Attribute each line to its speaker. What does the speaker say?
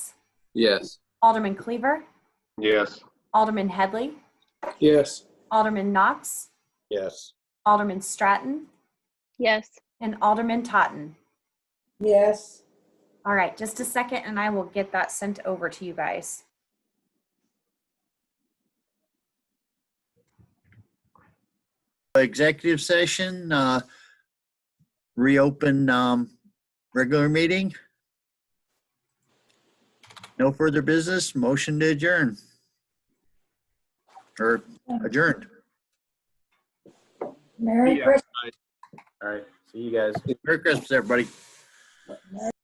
Speaker 1: Yes.
Speaker 2: Alderman Cleaver,
Speaker 3: Yes.
Speaker 2: Alderman Headley,
Speaker 3: Yes.
Speaker 2: Alderman Knox,
Speaker 3: Yes.
Speaker 2: Alderman Stratton,
Speaker 4: yes,
Speaker 2: and Alderman Totten.
Speaker 5: yes,
Speaker 2: All right, just a second and I will get that sent over to you guys.
Speaker 6: executive session, uh, reopen, um, regular meeting. No further business, motion to adjourn. Or adjourned.
Speaker 5: Merry
Speaker 3: Yeah.
Speaker 5: Christmas.
Speaker 3: All right. See you guys.
Speaker 6: Merry Christmas, everybody.